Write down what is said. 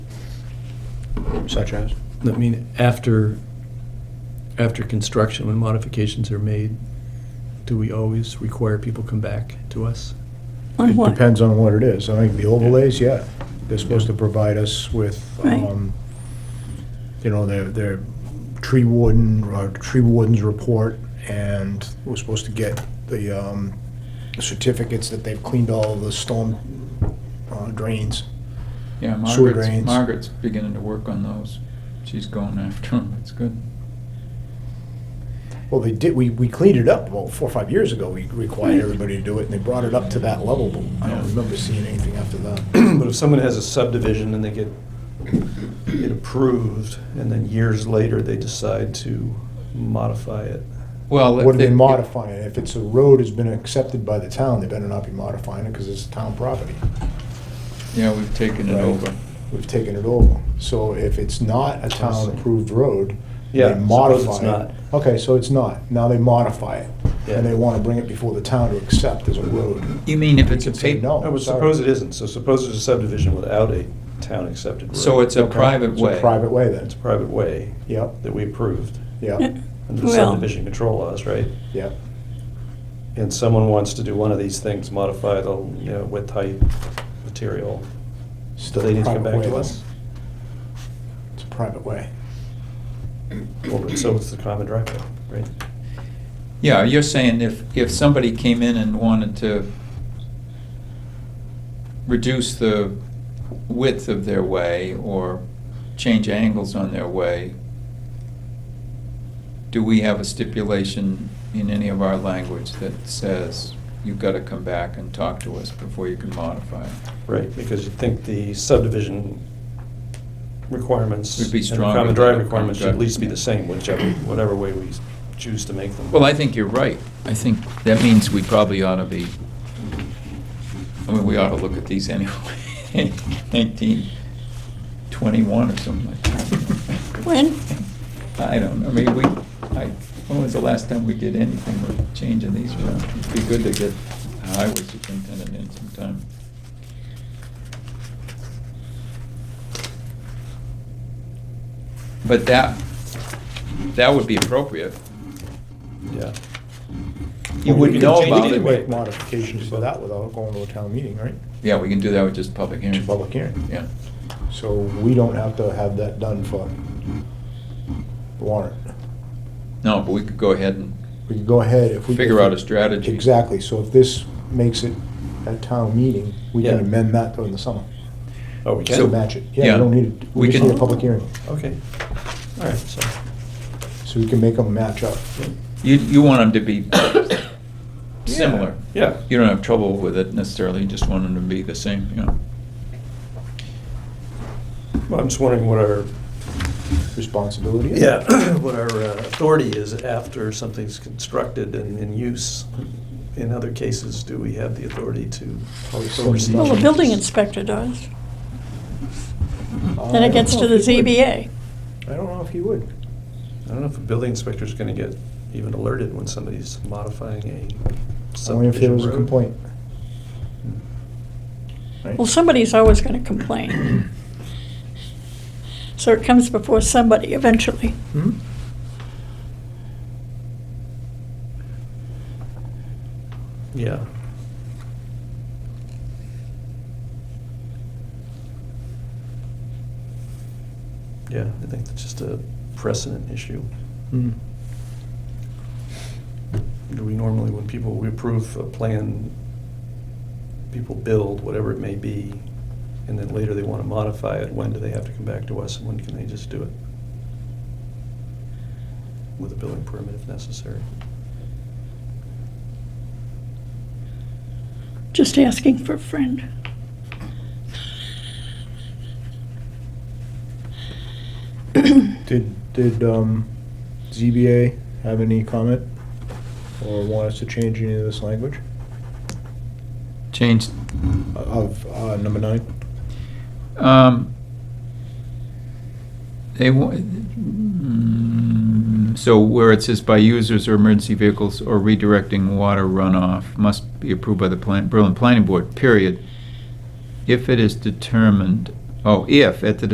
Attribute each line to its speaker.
Speaker 1: Such as?
Speaker 2: I mean, after, after construction, when modifications are made, do we always require people come back to us?
Speaker 3: On
Speaker 1: It
Speaker 3: what?
Speaker 1: depends on what it is. I think the overlays, yeah, they're supposed to provide us with,
Speaker 3: Right.
Speaker 1: um, you know, their, their tree warden, or tree warden's report, and we're supposed to get the um, certificates that they've cleaned all the storm uh, drains.
Speaker 4: Yeah,
Speaker 1: Sewer
Speaker 4: Margaret's,
Speaker 1: drains.
Speaker 4: Margaret's beginning to work on those. She's going after them. It's good.
Speaker 1: Well, they did, we, we cleaned it up about four or five years ago. We required everybody to do it, and they brought it up to that level, but I don't remember seeing anything after that.
Speaker 2: But if someone has a subdivision and they get it approved, and then years later, they decide to modify it.
Speaker 4: Well,
Speaker 1: What are they modifying? If it's a road has been accepted by the town, they better not be modifying it because it's town property.
Speaker 4: Yeah, we've taken it
Speaker 1: Right.
Speaker 4: over.
Speaker 1: We've taken it over. So if it's not a town-approved road, they
Speaker 2: Yeah, suppose
Speaker 1: modify
Speaker 2: it's
Speaker 1: it.
Speaker 2: not.
Speaker 1: Okay, so it's not. Now they modify it. And
Speaker 2: Yeah.
Speaker 1: they want to bring it before the town to accept as a road.
Speaker 4: You mean if it's a
Speaker 1: You can say
Speaker 4: paper?
Speaker 1: no.
Speaker 2: I would
Speaker 1: sorry.
Speaker 2: suppose it isn't, so suppose it's a subdivision without a town-accepted road.
Speaker 4: So it's a
Speaker 1: Okay.
Speaker 4: private
Speaker 1: It's
Speaker 4: way.
Speaker 1: a private way then.
Speaker 2: It's a private way
Speaker 1: Yep,
Speaker 2: that we approved
Speaker 1: yep,
Speaker 2: under the
Speaker 3: Well-
Speaker 2: subdivision control laws, right?
Speaker 1: yep.
Speaker 2: And someone wants to do one of these things, modify the, you know, width, height, material, do
Speaker 1: Still
Speaker 2: they need to
Speaker 1: private
Speaker 2: come back
Speaker 1: way,
Speaker 2: to
Speaker 1: though.
Speaker 2: us?
Speaker 1: It's a private way.
Speaker 2: Well, but so it's the common driveway, right?
Speaker 4: Yeah, you're saying if, if somebody came in and wanted to reduce the width of their way or change angles on their way, do we have a stipulation in any of our language that says you've got to come back and talk to us before you can modify it?
Speaker 2: Right, because you'd think the subdivision requirements.
Speaker 4: Would be
Speaker 2: And
Speaker 4: stronger
Speaker 2: the common
Speaker 4: than
Speaker 2: drive
Speaker 4: the
Speaker 2: requirements should
Speaker 4: common
Speaker 2: at least be
Speaker 4: drive.
Speaker 2: the same, whichever, whatever way we choose to make them.
Speaker 4: Well, I think you're right. I think that means we probably ought to be, I mean, we ought to look at these anyway. 1921 or something like that.
Speaker 3: When?
Speaker 4: I don't, know. I mean, we, I, when was the last time we did anything with changing these around? It'd be good to get a highway superintendent in sometime. But that, that would be appropriate.
Speaker 2: Yeah.
Speaker 1: Well, we
Speaker 4: You wouldn't
Speaker 1: can
Speaker 4: know
Speaker 1: change-
Speaker 4: about
Speaker 1: We
Speaker 4: it.
Speaker 1: can make modifications to that without going to a town meeting, right?
Speaker 4: Yeah, we can do that with just public hearing.
Speaker 1: Public hearing.
Speaker 4: Yeah.
Speaker 1: So we don't have to have that done for the warrant.
Speaker 4: No, but we could go ahead and,
Speaker 1: We could go ahead if we.
Speaker 4: Figure out a strategy.
Speaker 1: Exactly, so if this makes it at town meeting, we can
Speaker 2: Yeah.
Speaker 1: amend that during the summer.
Speaker 2: Oh, we
Speaker 1: To
Speaker 4: So-
Speaker 2: can?
Speaker 1: match it, yeah,
Speaker 4: yeah,
Speaker 1: we don't need, it.
Speaker 4: we
Speaker 1: we just
Speaker 4: can-
Speaker 1: need a public hearing,
Speaker 2: Okay. All right, so,
Speaker 1: so we can make them match up.
Speaker 4: you, you want them to be similar.
Speaker 2: yeah.
Speaker 4: You don't have trouble with it necessarily, you just want them to be the same, you know.
Speaker 2: well, I'm just wondering what our,
Speaker 1: Responsibility. is.
Speaker 2: yeah, what our uh, authority is after something's constructed and in use. In other cases, do we have the authority to oversee?
Speaker 3: Well, the building
Speaker 2: changes?
Speaker 3: inspector does.
Speaker 1: Uh, Um,
Speaker 3: Then
Speaker 1: I
Speaker 3: it gets
Speaker 1: don't
Speaker 3: to
Speaker 1: know
Speaker 3: the
Speaker 1: if he would.
Speaker 3: ZBA.
Speaker 1: I don't know if he would.
Speaker 2: I don't know if a building inspector's gonna get even alerted when somebody's modifying a subdivision
Speaker 1: Only if there was a
Speaker 2: road. Hmm.
Speaker 1: complaint.
Speaker 3: Well, somebody's always gonna complain. So it comes before somebody eventually.
Speaker 1: Hmm?
Speaker 2: Yeah. Yeah, I think that's just a precedent issue.
Speaker 1: Hmm.
Speaker 2: Do we normally, when people, we approve a plan, people build, whatever it may be, and then later they want to modify it, when do they have to come back to us, and when can they just do it? With a building permit if necessary.
Speaker 3: Just asking for a friend.
Speaker 1: Did, did, um, ZBA have any comment? Or want us to change any of this language
Speaker 4: Change,
Speaker 1: of, uh, number nine?
Speaker 4: um, they wa- mm, so where it says by users or emergency vehicles or redirecting water runoff must be approved by the plan, Berlin Planning Board, period. If it is determined, oh, if at the